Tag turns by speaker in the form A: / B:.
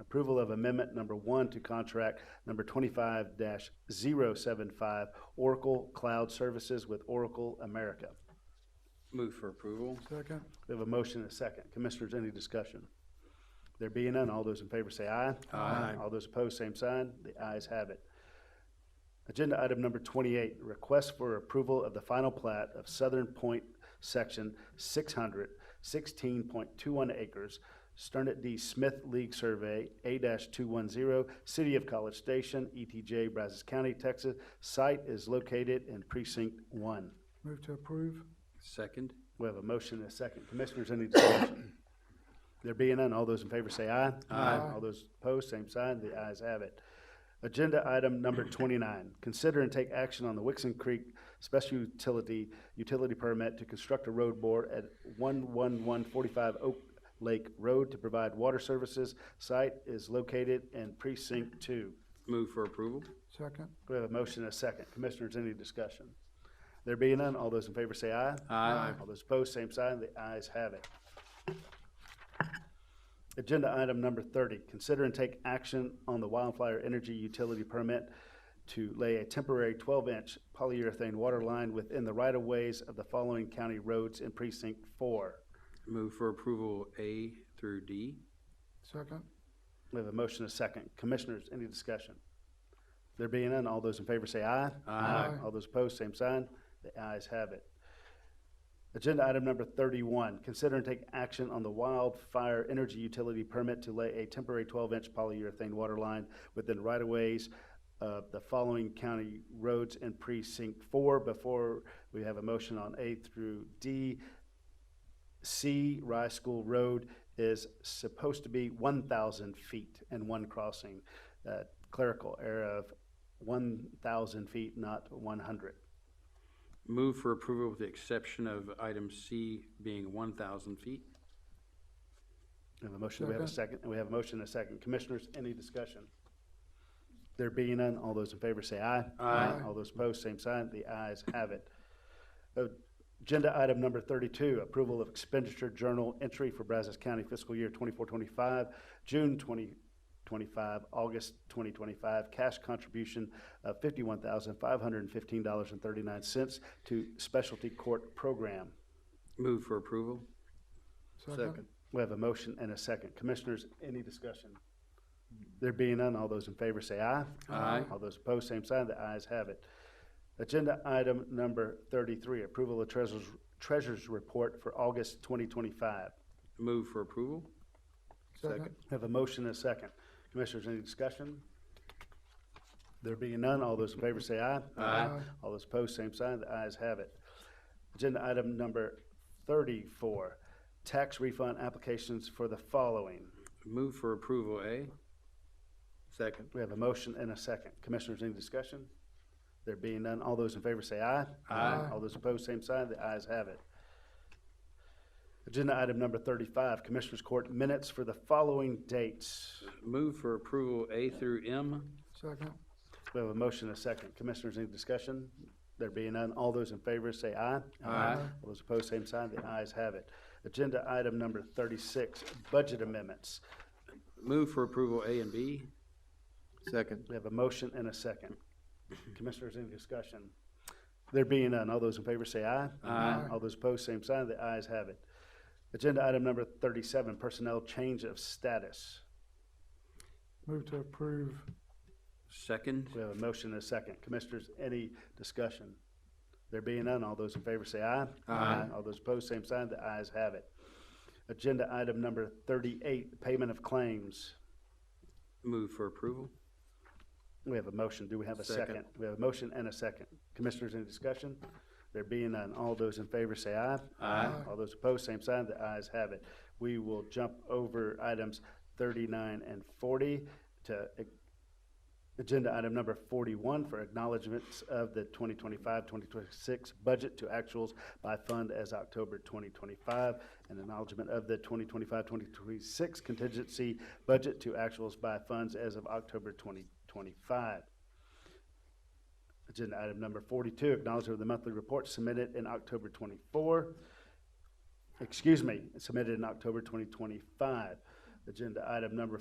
A: approval of amendment number one to contract number twenty-five 75 Oracle Cloud Services with Oracle America.
B: Move for approval.
C: Second.
A: We have a motion and a second. Commissioners, any discussion? There being none, all those in favor say aye.
B: Aye.
A: All those opposed, same sign. The ayes have it. Agenda item number twenty-eight, request for approval of the final plat of Southern Point Section six hundred sixteen point two one acres, Sternet D. Smith League Survey, A two one zero, City of College Station, ETJ, Brazos County, Texas. Site is located in precinct one.
C: Move to approve.
B: Second.
A: We have a motion and a second. Commissioners, any discussion? There being none, all those in favor say aye.
C: Aye.
A: All those opposed, same sign. The ayes have it. Agenda item number twenty-nine, consider and take action on the Wixon Creek Special Utility Utility Permit to construct a road bore at one-one-one-forty-five Oak Lake Road to provide water services. Site is located in precinct two.
B: Move for approval.
C: Second.
A: We have a motion and a second. Commissioners, any discussion? There being none, all those in favor say aye.
B: Aye.
A: All those opposed, same sign. The ayes have it. Agenda item number thirty, consider and take action on the wildfire energy utility permit to lay a temporary twelve-inch polyurethane water line within the right-of-ways of the following county roads in precinct four.
B: Move for approval A through D.
C: Second.
A: We have a motion and a second. Commissioners, any discussion? There being none, all those in favor say aye.
B: Aye.
A: All those opposed, same sign. The ayes have it. Agenda item number thirty-one, consider and take action on the wildfire energy utility permit to lay a temporary twelve-inch polyurethane water line within right-of-ways of the following county roads in precinct four. Before we have a motion on A through D, C, Rice School Road is supposed to be one thousand feet and one crossing. Uh, Clerical error of one thousand feet, not one hundred.
B: Move for approval with the exception of item C being one thousand feet.
A: We have a motion, we have a second, and we have a motion and a second. Commissioners, any discussion? There being none, all those in favor say aye.
B: Aye.
A: All those opposed, same sign. The ayes have it. Agenda item number thirty-two, approval of expenditure journal entry for Brazos County fiscal year twenty-four, twenty-five, June twenty twenty-five, August twenty twenty-five, cash contribution of fifty-one thousand, five hundred and fifteen dollars and thirty-nine cents to specialty court program.
B: Move for approval.
A: We have a motion and a second. Commissioners, any discussion? There being none, all those in favor say aye.
B: Aye.
A: All those opposed, same sign. The ayes have it. Agenda item number thirty-three, approval of treasurer's, treasurer's report for August twenty twenty-five.
B: Move for approval.
C: Second.
A: Have a motion and a second. Commissioners, any discussion? There being none, all those in favor say aye.
C: Aye.
A: All those opposed, same sign. The ayes have it. Agenda item number thirty-four, tax refund applications for the following.
B: Move for approval A. Second.
A: We have a motion and a second. Commissioners, any discussion? There being none, all those in favor say aye.
B: Aye.
A: All those opposed, same sign. The ayes have it. Agenda item number thirty-five, Commissioners Court minutes for the following dates.
B: Move for approval A through M.
C: Second.
A: We have a motion and a second. Commissioners, any discussion? There being none, all those in favor say aye.
B: Aye.
A: All those opposed, same sign. The ayes have it. Agenda item number thirty-six, budget amendments.
B: Move for approval A and B.
D: Second.
A: We have a motion and a second. Commissioners, any discussion? There being none, all those in favor say aye.
B: Aye.
A: All those opposed, same sign. The ayes have it. Agenda item number thirty-seven, personnel change of status.
C: Move to approve.
B: Second.
A: We have a motion and a second. Commissioners, any discussion? There being none, all those in favor say aye.
B: Aye.
A: All those opposed, same sign. The ayes have it. Agenda item number thirty-eight, payment of claims.
B: Move for approval.
A: We have a motion. Do we have a
B: Second.
A: second? We have a motion and a second. Commissioners, any discussion? There being none, all those in favor say aye.
B: Aye.
A: All those opposed, same sign. The ayes have it. We will jump over items thirty-nine and forty to a- agenda item number forty-one for acknowledgements of the 2025-2026 budget to actuals by fund as October twenty twenty-five and acknowledgement of the 2025-2026 contingency budget to actuals by funds as of October twenty twenty-five. Agenda item number forty-two, acknowledgement of the monthly report submitted in October twenty-four. Excuse me, submitted in October twenty twenty-five. Agenda item number